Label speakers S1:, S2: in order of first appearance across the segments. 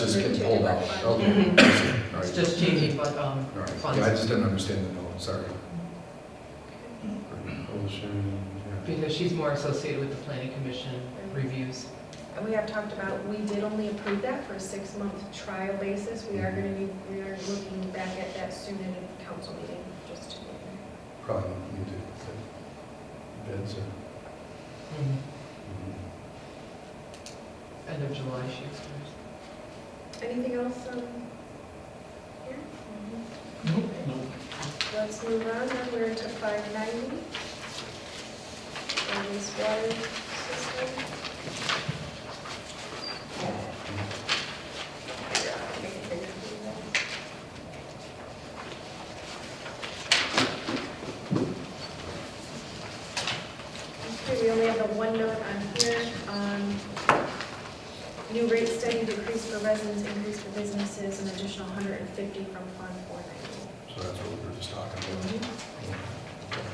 S1: just
S2: Two
S1: getting pulled out.
S2: different funds.
S1: Okay. All
S3: It's
S1: right.
S3: just changing, but, um,
S1: All right.
S3: funds.
S1: Yeah, I just didn't understand the note, sorry.
S3: because she's more associated with the planning commission reviews.
S2: And we have talked about, we did only approve that for a six-month trial basis. We are gonna be, we are looking back at that soon in a council meeting, just to.
S1: Probably you do.
S4: Bids are.
S3: Mhm.
S5: Mm-hmm.
S1: mm-hmm.
S3: End of July, she expires.
S2: Anything else, um, here? Let's move on, then we're to five ninety. And this water system. Yeah, I can figure it out. Okay, we only have the one note on here. um, New rate study decrease for residents, increase for businesses, an additional 150 from Fund 490.
S1: So that's what we were just talking about.
S3: Mm-hmm.
S1: Okay.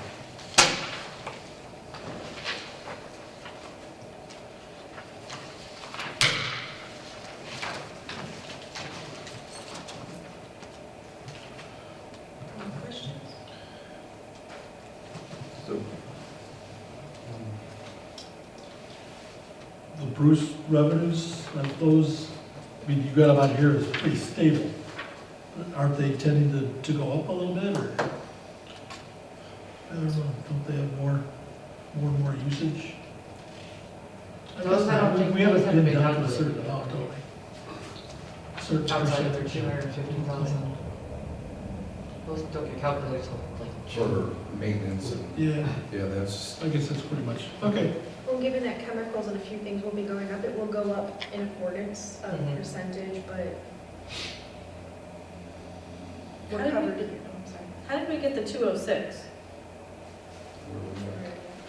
S2: Any questions?
S4: So,
S5: The Bruce revenues, like those, I mean, you got them out here is pretty stable. Aren't they tending to, to go up a little bit, or? I don't know, don't they have more, more and more usage? I
S3: Those
S5: guess
S3: I don't
S5: we-
S3: think-
S5: We
S3: those
S5: haven't
S3: haven't
S5: been
S3: been
S5: down to a
S3: calculated.
S5: certain amount, don't we? Certain
S3: Outside of
S5: percent.
S3: their two hundred and fifty thousand. Those don't get calculated till like June.
S1: For maintenance and,
S5: Yeah,
S1: yeah, that's,
S5: I guess that's pretty much, okay.
S2: Well, given that chemicals and a few things will be going up, it will go up in accordance of
S4: Mm-hmm.
S3: Mhm.
S2: percentage, but
S6: How
S2: we're
S6: did we
S2: covered.
S6: get-
S2: Oh, I'm sorry.
S6: How did we get the 206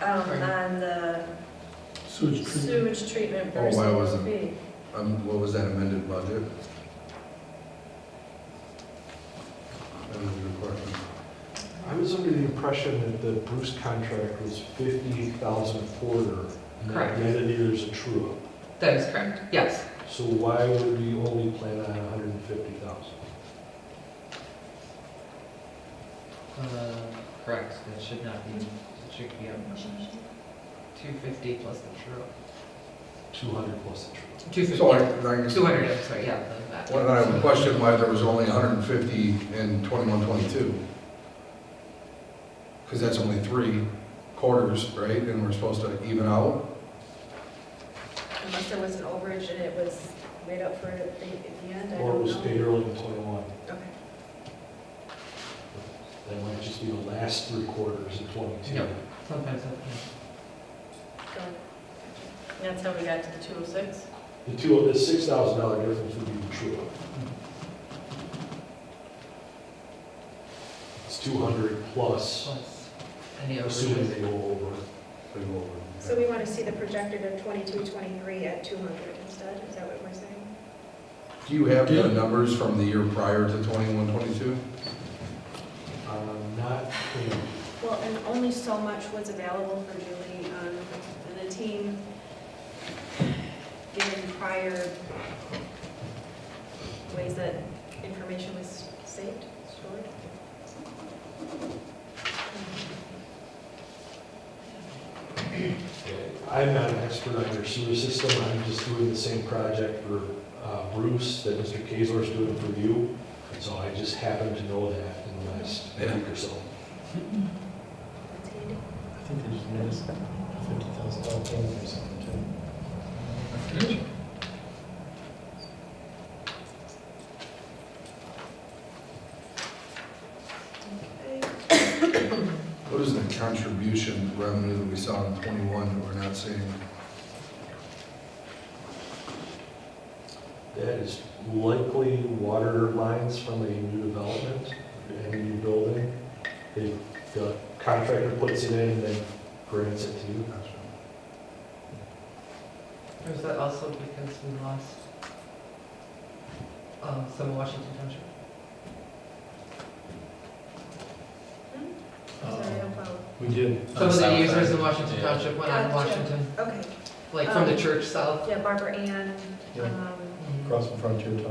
S6: um,
S3: Right.
S6: on the
S5: Sewage treatment.
S6: sewage treatment
S1: Oh,
S6: versus
S1: why
S6: the
S1: wasn't-
S6: fee?
S1: um, what was that amended budget? That was your question.
S4: I was under the impression that the Bruce contract was fifty thousand quarter. and
S3: Correct.
S4: At the end of the year is a true up.
S3: That is correct, yes.
S4: So why would we only plan on a hundred and fifty thousand?
S3: Uh, Correct, that should not be, it should be two fifty plus the true.
S4: Two hundred plus the true up.
S3: Two fifty,
S1: So I, I guess,
S3: two hundred, I'm sorry, yeah. the- that.
S1: well, I have a question why there was only hundred and fifty in twenty-one, twenty-two. Because that's only three quarters, right, and we're supposed to even out?
S2: Unless there was an overage and it was made up for it at the at the end, I
S4: Or it
S2: don't
S4: was paid
S2: know.
S4: early in twenty-one.
S2: Okay.
S4: That might just be the last three quarters of twenty-two.
S3: Yeah. Sometimes, that- yeah.
S2: Go ahead.
S6: That's how we got to the 206?
S4: The two, the six thousand dollar difference would be the true up. It's two hundred plus,
S3: plus any
S4: assuming
S3: overages.
S4: they go over.
S1: They go over.
S2: So we want to see the projected of 22, 23 at 200 instead, is that what we're saying?
S1: Do you have the numbers from the year prior to twenty-one, twenty-two?
S4: Um, not, you know,
S6: Well, and only so much was available for Julie. Um, The team, given prior
S2: Ways that information was saved, stored?
S4: I'm not an expert on your sewer system, I'm just doing the same project for uh, Bruce that Mr. Kaysler's doing for you, so I just happen to know that in the last
S1: Yeah.
S4: week or so.
S2: That's handy.
S7: I think they just made us a fifty thousand dollar payment or something too.
S2: Okay.
S1: What is the contribution revenue that we saw in twenty-one that we're not seeing?
S4: That is likely water lines from a new development, and a new building. They- The contractor puts it in, then grants it to you.
S3: Or is that also because we lost um, some Washington Township?
S2: I'm Sorry, I don't follow.
S7: We did.
S3: Some of the users in Washington
S7: Yeah.
S3: Township went on
S2: Gotcha.
S3: Washington,
S2: Okay,
S3: like from the
S2: Um,
S3: church south. Mm-hmm.
S2: yeah, Barbara Ann,
S7: Yeah.
S2: um,
S7: Across from Frontier Town.